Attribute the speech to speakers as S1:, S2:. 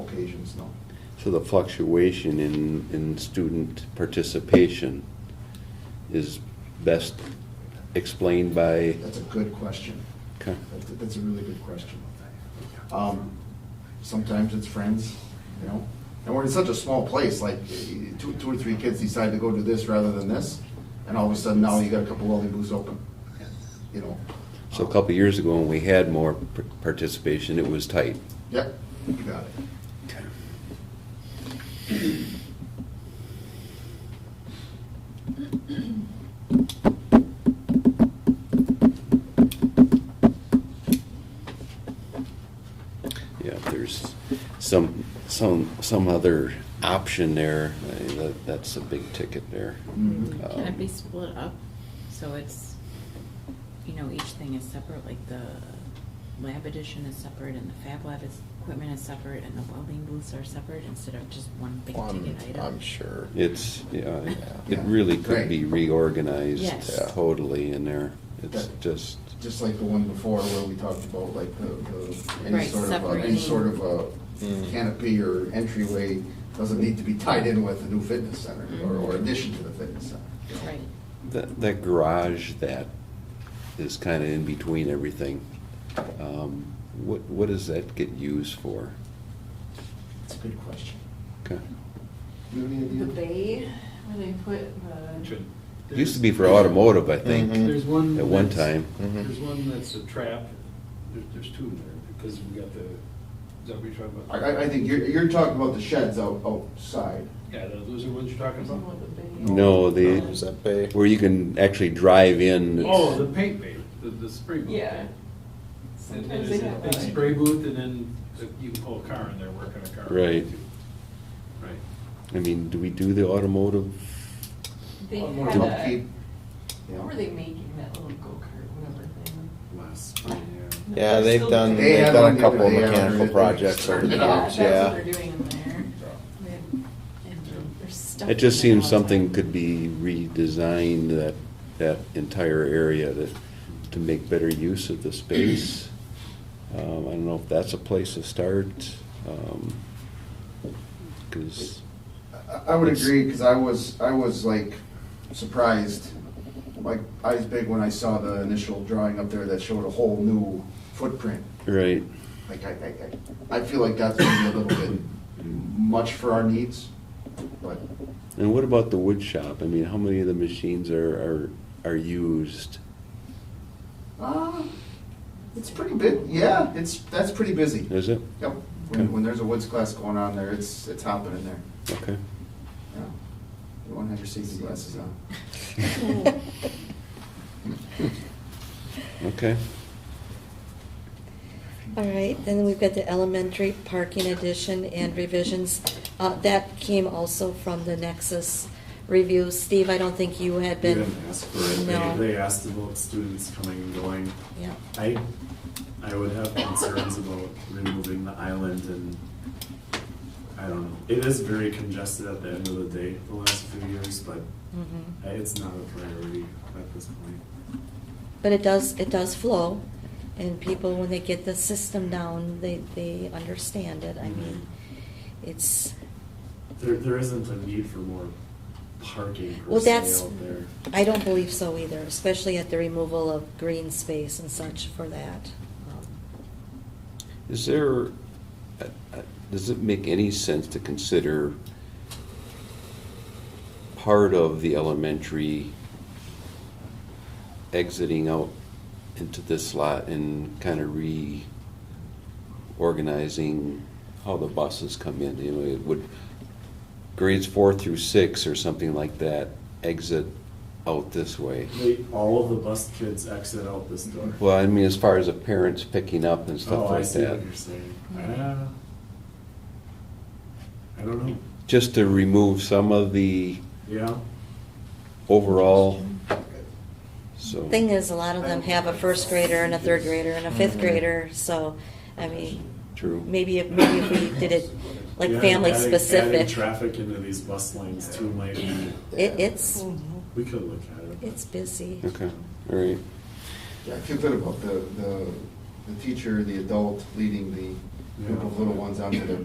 S1: occasions, no.
S2: So the fluctuation in, in student participation is best explained by,
S1: That's a good question.
S2: okay,
S1: That- That's a really good question. Um, Sometimes it's friends, you know? And we're in such a small place, like eh, two, two or three kids decide to go do this rather than this, and all of a sudden now you got a couple welding booths open, you know?
S2: so a couple of years ago when we had more par- participation, it was tight.
S1: Yep, you got it.
S2: Yeah, if there's some, some, some other option there, eh, that, that's a big ticket there.
S1: Mhm.
S2: Uh,
S3: Can it be split up, so it's, you know, each thing is separate, like the lab edition is separate, and the fab lab is, equipment is separate, and the welding booths are separate, instead of just one big
S4: I'm,
S3: ticket item?
S4: I'm sure.
S2: It's, yeah, it- it
S1: Yeah.
S2: really could
S1: Right.
S2: be reorganized
S3: Yes.
S2: totally in there. It's
S1: That-
S2: just,
S1: Just like the one before where we talked about like the, the, any
S3: Right,
S1: sort of, a- any
S3: separating.
S1: sort of a
S4: Mm.
S1: canopy or entryway doesn't need to be tied in with the new fitness center or,
S5: Mm-hmm.
S1: or
S3: Mhm.
S1: addition to the fitness center. you know?
S3: Right,
S2: that, that garage that is kind of in between everything, um, what, what does that get used for?
S1: That's a good question.
S2: Okay.
S1: You have any idea?
S5: The bay, where they put the,
S2: It Used to be for automotive, I think.
S4: Mhm.
S6: There's one.
S2: At one
S6: that's-
S2: time.
S4: Mhm.
S6: There's one that's a trap, there's, there's two in there, because we got the, is that what you're talking
S1: I,
S6: about?
S1: I- I think you're, you're talking about the sheds out, outside.
S6: Yeah, the- those are the ones you're talking
S5: something
S6: about?
S5: with the bay.
S2: No,
S4: Is
S2: the,
S4: that bay?
S2: where you can actually drive in.
S6: Oh, the paint bay, the, the spray booth.
S5: Yeah.
S6: And
S5: Sometimes
S6: then
S5: they
S6: it's a
S5: have
S6: big
S5: that.
S6: spray booth, and then you can pull a car in there, work on a car.
S2: Right.
S6: Right.
S2: I mean, do we do the automotive?
S5: They
S1: One more
S5: had a,
S1: upkeep, you know.
S5: what were they making, that little go-kart, whatever thing?
S6: Last spring, yeah.
S4: Yeah, they've done,
S1: They
S4: they've
S1: had
S4: done
S1: one
S4: a
S1: the
S4: couple
S1: other
S4: of
S1: day after
S4: mechanical
S1: they
S4: projects over
S1: started
S4: the
S1: it
S5: Yeah, that's
S4: years,
S5: what
S4: yeah.
S5: they're doing in there. They have- and they're stuck
S2: It just
S5: in there
S2: seems
S5: all the
S2: something
S5: time.
S2: could be redesigned, that, that entire area to, to make better use of the space. Um, I don't know if that's a place to start, um, cause,
S1: I- I would
S2: It's-
S1: agree, because I was, I was like surprised, like eyes big when I saw the initial drawing up there that showed a whole new footprint.
S2: right,
S1: Like, I, I, I I feel like that's maybe a little bit much for our needs, but
S2: and what about the wood shop? I mean, how many of the machines are, are, are used?
S1: Uh, it's pretty big, yeah, it's, that's pretty busy.
S2: Is it?
S1: Yep, when, when there's a woods class going on there, it's, it's hopping in there,
S2: Okay.
S1: yeah. You won't have your safety glasses on.
S2: Okay,
S7: All right, then we've got the elementary parking addition and revisions. Uh, That came also from the Nexus review. Steve, I don't think you had
S8: You
S7: been.
S8: didn't ask for it.
S7: No.
S8: They, they asked about students coming and going.
S7: Yeah.
S8: I, I would have concerns about removing the island and, I don't know. It is very congested at the end of the day, the last few years, but
S7: Mhm.
S8: I- it's not a priority at this point.
S7: But it does, it does flow, and people, when they get the system down, they, they understand it. I
S8: Mm-hmm.
S7: mean, it's,
S8: There, there isn't a need for more parking per
S7: Well, that's-
S8: se out there.
S7: I don't believe so either, especially at the removal of green space and such for that. Um,
S2: is there, uh, uh, does it make any sense to consider part of the elementary exiting out into this lot and kind of reorganizing how the buses come in? You know, it would, grades four through six or something like that exit out this way.
S8: They, all of the bus kids exit out this door.
S2: Well, I mean, as far as the parents picking up and
S8: Oh,
S2: stuff
S8: I
S2: like
S8: see
S2: that.
S8: what you're saying. Uh, I don't know.
S2: Just to remove some of the
S8: Yeah.
S2: overall,
S8: Oh.
S2: so.
S7: Thing is, a lot of them have a first grader and a third grader and a fifth grader, so, I mean,
S2: True.
S7: maybe if, maybe if we did it like
S8: Yeah,
S7: family
S8: adding- Adding
S7: specific.
S8: traffic into these bus lanes too might be,
S7: It, it's,
S8: we could look at it. but-
S7: it's busy.
S2: Okay, all right.
S1: Yeah, I feel good about the, the, the teacher, the adult leading the group of little ones onto their